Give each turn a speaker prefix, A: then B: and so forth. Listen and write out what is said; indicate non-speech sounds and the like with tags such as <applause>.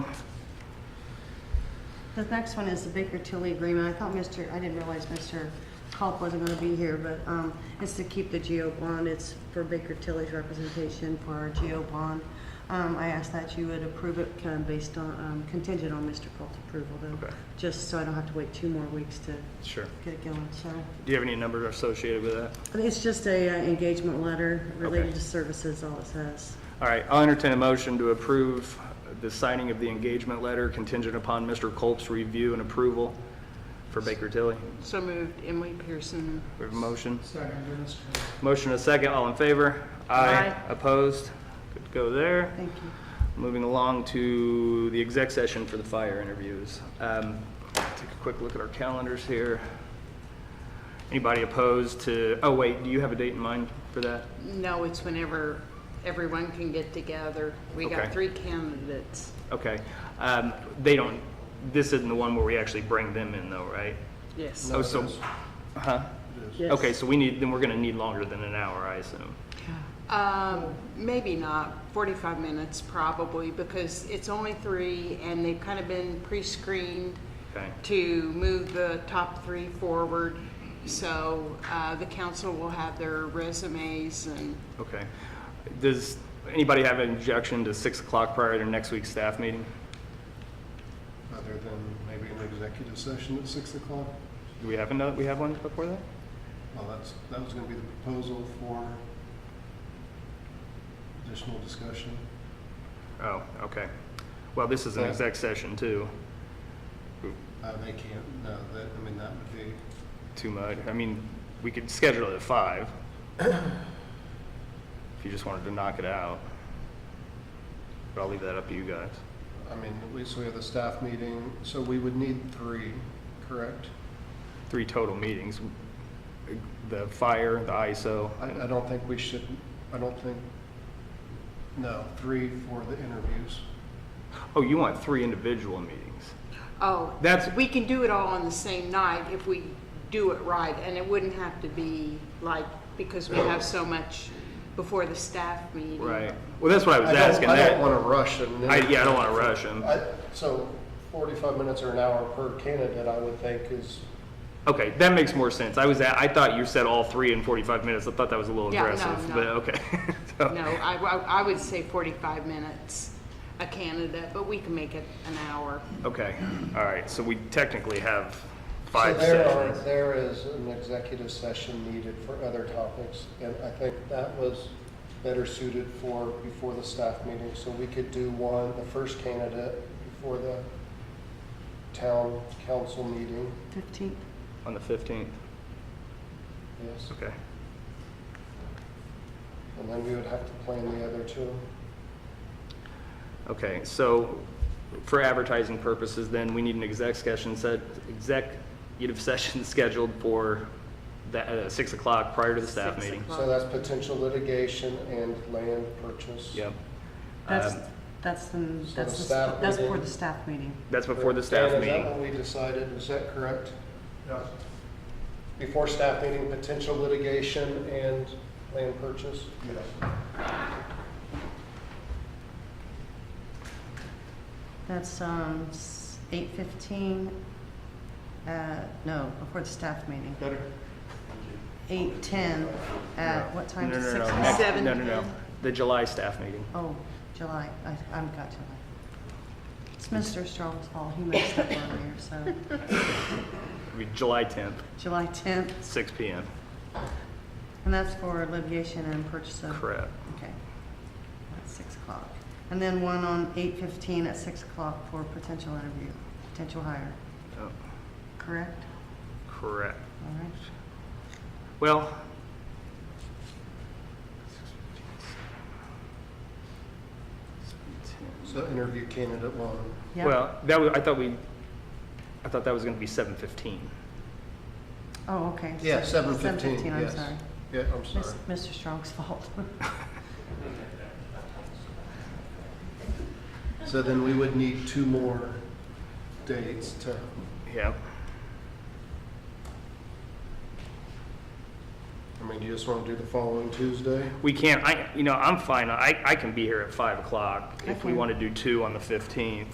A: The next one is the Baker Tilly agreement. I thought Mr., I didn't realize Mr. Culp wasn't gonna be here, but, um, it's to keep the geo bond. It's for Baker Tilly's representation for our geo bond. Um, I asked that you would approve it, kind of based on, um, contingent on Mr. Culp's approval though.
B: Okay.
A: Just so I don't have to wait two more weeks to
B: Sure.
A: get it going, so.
B: Do you have any numbers associated with that?
A: But it's just a uh, engagement letter related
B: Okay.
A: to services, all it says.
B: All right, I'll entertain a motion to approve the signing of the engagement letter contingent upon Mr. Culp's review and approval for Baker Tilly.
C: So moved, Emily Pearson.
B: We have a motion.
D: Second, Dennis Terry.
B: Motion and a second, all in favor?
C: Aye.
B: Opposed? Good to go there.
A: Thank you.
B: Moving along to the exec session for the fire interviews. Um, Take a quick look at our calendars here. Anybody opposed to, oh wait, do you have a date in mind for that?
C: No, it's whenever everyone can get together. We
B: Okay.
C: got three candidates.
B: Okay. Um, They don't, this isn't the one where we actually bring them in though, right?
C: Yes.
B: Oh, so, huh?
A: Yes.
B: Okay, so we need, then we're gonna need longer than an hour, I assume.
C: Um, maybe not, forty-five minutes probably, because it's only three and they've kind of been pre-screened
B: Okay.
C: to move the top three forward. So, uh, the council will have their resumes and
B: Okay. Does anybody have an objection to six o'clock prior to next week's staff meeting?
D: Other than maybe an executive session at six o'clock?
B: Do we have another, we have one before that?
D: Well, that's, that was gonna be the proposal for additional discussion.
B: Oh, okay. Well, this is an exec session too.
D: Uh, they can't, no, that, I mean, that would be,
B: Too much. I mean, we could schedule it at <coughs> five. If you just wanted to knock it out. But I'll leave that up to you guys.
D: I mean, at least we have the staff meeting, so we would need three, correct?
B: Three total meetings. The fire, the ISO.
D: I, I don't think we should, I don't think, no, three for the interviews.
B: Oh, you want three individual meetings?
C: Oh,
B: That's-
C: we can do it all on the same night if we do it right, and it wouldn't have to be like, because we have so much before the staff meeting.
B: Right. Well, that's what I was
D: I don't-
B: asking.
D: I
B: that-
D: don't wanna rush and.
B: I, yeah, I don't want to rush him.
D: I, so forty-five minutes or an hour per candidate, I would think is,
B: Okay, that makes more sense. I was, at, I thought you said all three in 45 minutes. I thought that was a little
C: Yeah, no,
B: aggressive,
C: no.
B: but okay. <laughs> So-
C: No, I, I- I would say forty-five minutes a candidate, but we can make it an hour.
B: Okay, all right, so we technically have
D: so
B: five
D: there are,
B: sessions.
D: there is an executive session needed for other topics. And I think that was better suited for before the staff meeting, so we could do one, the first candidate before the town council meeting,
A: Fifteenth.
B: On the 15th,
D: yes.
B: okay.
D: And then we would have to plan the other two.
B: Okay, so for advertising purposes, then, we need an exec session, set- executive <laughs> session scheduled for that, uh, 6 o'clock prior to the staff
C: Six
B: meeting.
C: o'clock.
D: So that's potential litigation and land purchase.
B: Yep,
A: That's,
B: Um,
A: that's the,
D: So
A: that's
D: the
A: the,
D: staff
A: that's for
D: meeting-
A: the staff meeting.
B: that's before the staff
D: Dan, Is that
B: meeting.
D: what we decided, is that correct?
E: Yes,
D: Before staff meeting, potential litigation and land purchase?
E: yes.
A: That's, um, eight fifteen, uh, no, before the staff meeting.
E: Better?
A: Eight ten, at what time?
B: No,
A: Six
B: no, no,
A: o'clock?
B: next-
C: Seven
B: No, no, no,
C: p.m.
B: the July staff meeting.
A: Oh, July, I, I've got July. It's Mr. Strong's fault, he messed up earlier, so,
B: It'll be July 10th,
A: July tenth,
B: six PM.
A: and that's for litigation and purchase of.
B: Correct.
A: Okay, at six o'clock. And then one on eight fifteen at six o'clock for potential interview, potential hire,
B: Oh,
A: correct?
B: Correct.
A: All right.
B: Well,
D: So interview candidate one.
A: Yep.
B: well, that was, I thought we, I thought that was going to be seven fifteen.
A: Oh, okay.
D: Yeah, seven fifteen, yes.
A: 7:15, I'm sorry.
D: Yeah, I'm
A: Mis- Mr.
D: sorry.
A: Strong's <laughs> fault.
D: So then we would need two more dates to,
B: Yeah.
D: I mean, do you just want to do the following Tuesday?
B: We can't, I, you know, I'm fine. I, I can be here at five o'clock if we
A: Okay.
B: want to do two on the fifteenth.